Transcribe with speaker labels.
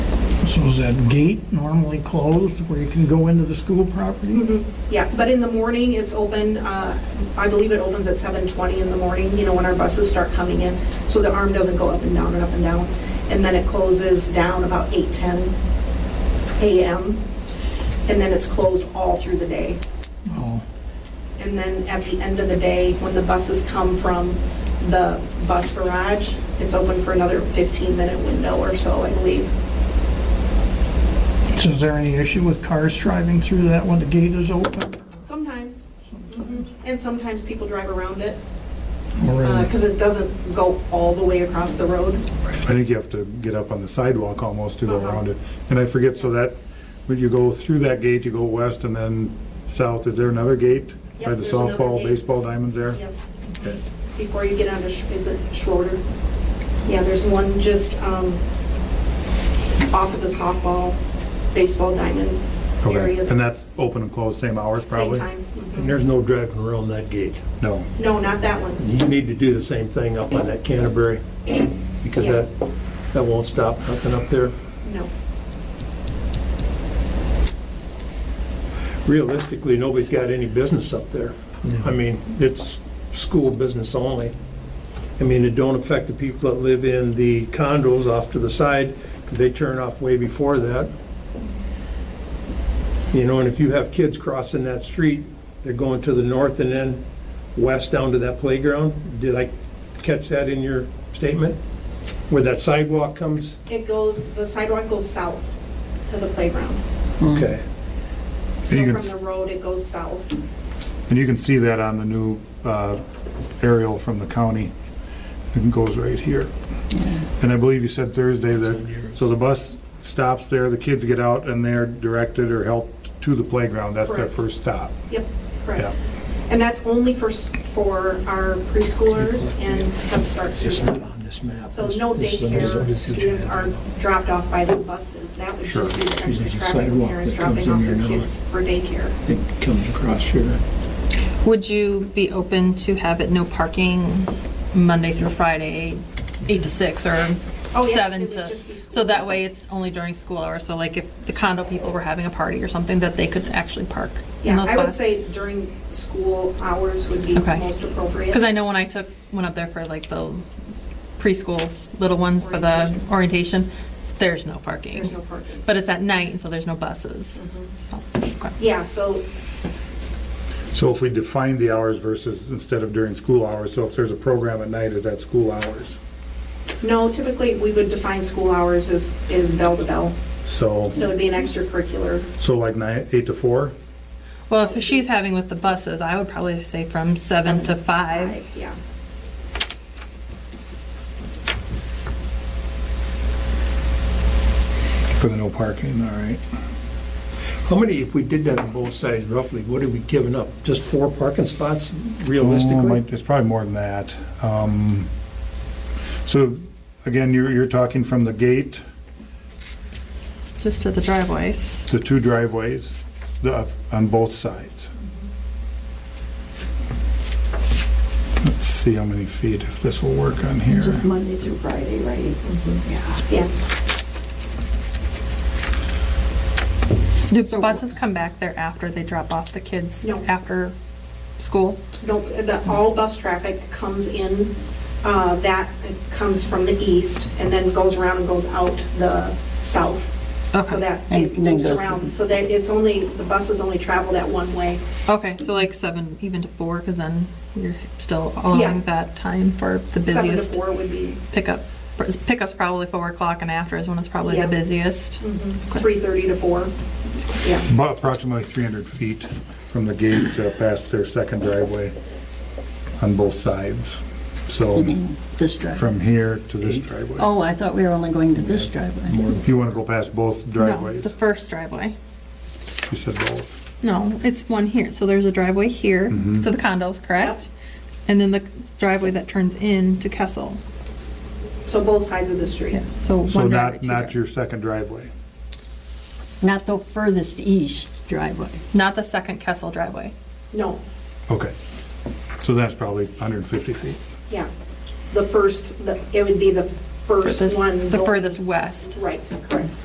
Speaker 1: So is that gate normally closed where you can go into the school property?
Speaker 2: Mm-hmm. Yeah, but in the morning, it's open, uh, I believe it opens at 7:20 in the morning, you know, when our buses start coming in, so the arm doesn't go up and down and up and down. And then it closes down about 8:10 a.m., and then it's closed all through the day.
Speaker 1: Oh,
Speaker 2: And then at the end of the day, when the buses come from the bus garage, it's open for another 15-minute window or so, I believe.
Speaker 1: So is there any issue with cars driving through that when the gate is open?
Speaker 2: Sometimes, Mhm. and sometimes people drive around it.
Speaker 1: Or is
Speaker 2: because Uh, it doesn't go all the way across the road.
Speaker 3: I think you have to get up on the sidewalk almost to go
Speaker 2: Uh-huh.
Speaker 3: around it. And I forget, so that, when you go through that gate, you go west and then south, is there another gate?
Speaker 2: Yep,
Speaker 3: By the
Speaker 2: there's another
Speaker 3: softball,
Speaker 2: gate.
Speaker 3: baseball diamonds there?
Speaker 2: Yep.
Speaker 3: Okay.
Speaker 2: Before you get onto, Sch- is it Schroeder? Yeah, there's one just um, off of the softball, baseball diamond
Speaker 3: Okay,
Speaker 2: area.
Speaker 3: and that's open and closed, same hours
Speaker 2: Same
Speaker 3: probably?
Speaker 2: time.
Speaker 4: And
Speaker 2: Mhm.
Speaker 4: there's no driving around that gate.
Speaker 3: No,
Speaker 2: No, not that one.
Speaker 4: You need to do the same thing up on that Canterbury, because
Speaker 2: Yeah.
Speaker 4: that, that won't stop nothing up there.
Speaker 2: No.
Speaker 4: Realistically, nobody's got any business up there. I mean, it's school business only. I mean, it don't affect the people that live in the condos off to the side, because they turn off way before that. You know, and if you have kids crossing that street, they're going to the north and then west down to that playground. Did I catch that in your statement? Where that sidewalk comes?
Speaker 2: It goes, the sidewalk goes south to the playground.
Speaker 4: Okay.
Speaker 2: So
Speaker 3: you can
Speaker 2: from
Speaker 3: s-
Speaker 2: the road, it goes south.
Speaker 3: and you can see that on the new uh, aerial from the county. It goes right here. And I believe you said Thursday that, so the bus stops there, the kids get out and they're directed or helped to the playground, that's their
Speaker 2: Correct.
Speaker 3: first stop.
Speaker 2: Yep,
Speaker 3: Yeah.
Speaker 2: correct. And that's only for, s- for our preschoolers and Head Start students. So no daycare students are dropped off by the buses. That would just be the extra
Speaker 4: There's a
Speaker 2: traffic of
Speaker 4: sidewalk
Speaker 2: parents
Speaker 4: that
Speaker 2: dropping
Speaker 4: comes in
Speaker 2: off
Speaker 4: here
Speaker 2: their
Speaker 4: now.
Speaker 2: kids for daycare.
Speaker 4: I think it comes across here.
Speaker 5: Would you be open to have it no parking Monday through Friday, eight to six or
Speaker 2: Oh, yeah, it
Speaker 5: seven
Speaker 2: would
Speaker 5: to?
Speaker 2: just be school.
Speaker 5: So that way it's only during school hours, so like if the condo people were having a party or something, that they could actually park in
Speaker 2: Yeah,
Speaker 5: those
Speaker 2: I would
Speaker 5: spots?
Speaker 2: say during school hours would be
Speaker 5: Okay.
Speaker 2: most appropriate.
Speaker 5: Because I know when I took, went up there for like the preschool little ones for the
Speaker 2: Orientation.
Speaker 5: orientation, there's no parking.
Speaker 2: There's no parking.
Speaker 5: But it's at night, and so there's no buses,
Speaker 2: Mhm.
Speaker 5: so, okay.
Speaker 2: Yeah, so,
Speaker 3: So if we define the hours versus instead of during school hours, so if there's a program at night, is that school hours?
Speaker 2: no, typically, we would define school hours as, as bell to bell.
Speaker 3: So,
Speaker 2: So it'd be an extracurricular.
Speaker 3: so like nine, eight to four?
Speaker 5: Well, if she's having with the buses, I would probably say from seven to five.
Speaker 2: Yeah.
Speaker 3: For the no parking, all right.
Speaker 4: How many, if we did that on both sides roughly, what have we given up? Just four parking spots
Speaker 3: Oh,
Speaker 4: realistically?
Speaker 3: might- It's probably more than that. Um, So again, you're, you're talking from the gate,
Speaker 5: Just to the driveways.
Speaker 3: the two driveways, the, on both sides. Let's see how many feet, if this will work on here.
Speaker 6: Just Monday through Friday, right? Yeah.
Speaker 2: Yeah.
Speaker 5: Do
Speaker 6: So-
Speaker 5: buses come back there after they drop off the kids
Speaker 2: No.
Speaker 5: after school?
Speaker 2: No, the, all bus traffic comes in, uh, that comes from the east and then goes around and goes out the south. So
Speaker 5: Okay.
Speaker 2: that
Speaker 6: And
Speaker 2: it
Speaker 6: then
Speaker 2: moves
Speaker 6: goes to
Speaker 2: around,
Speaker 6: the-
Speaker 2: so that it's only, the buses only travel that one way.
Speaker 5: Okay, so like seven, even to four, because then you're still
Speaker 2: Yeah.
Speaker 5: allowing that time for the
Speaker 2: Seven to
Speaker 5: busiest
Speaker 2: four would be
Speaker 5: pickup. Pickup's probably four o'clock and after is when it's probably
Speaker 2: Yeah. Mm.
Speaker 5: the busiest.
Speaker 2: three thirty to four. Yeah,
Speaker 3: About approximately 300 feet from the gate uh, past their second driveway on both sides. So
Speaker 6: You mean this driveway?
Speaker 3: from here to this driveway.
Speaker 6: Oh, I thought we were only going to this driveway.
Speaker 3: If you want to go past both
Speaker 5: No, the
Speaker 3: driveways,
Speaker 5: first driveway.
Speaker 3: you said both.
Speaker 5: No, it's one here. So there's a driveway here
Speaker 3: Mhm.
Speaker 5: to the condos, correct? And then the driveway that turns in to Kessel.
Speaker 2: so both sides of the street.
Speaker 5: Yeah. So one
Speaker 3: So
Speaker 5: driveway,
Speaker 3: not,
Speaker 5: two
Speaker 3: not
Speaker 5: driveways.
Speaker 3: your second driveway.
Speaker 6: Not the furthest east driveway.
Speaker 5: not the second Kessel driveway.
Speaker 2: No,
Speaker 3: Okay. So that's probably 150 feet.
Speaker 2: yeah, the first, the- it would be the first
Speaker 5: Furthest-
Speaker 2: one.
Speaker 5: the
Speaker 2: go-
Speaker 5: furthest west.
Speaker 2: Right, correct.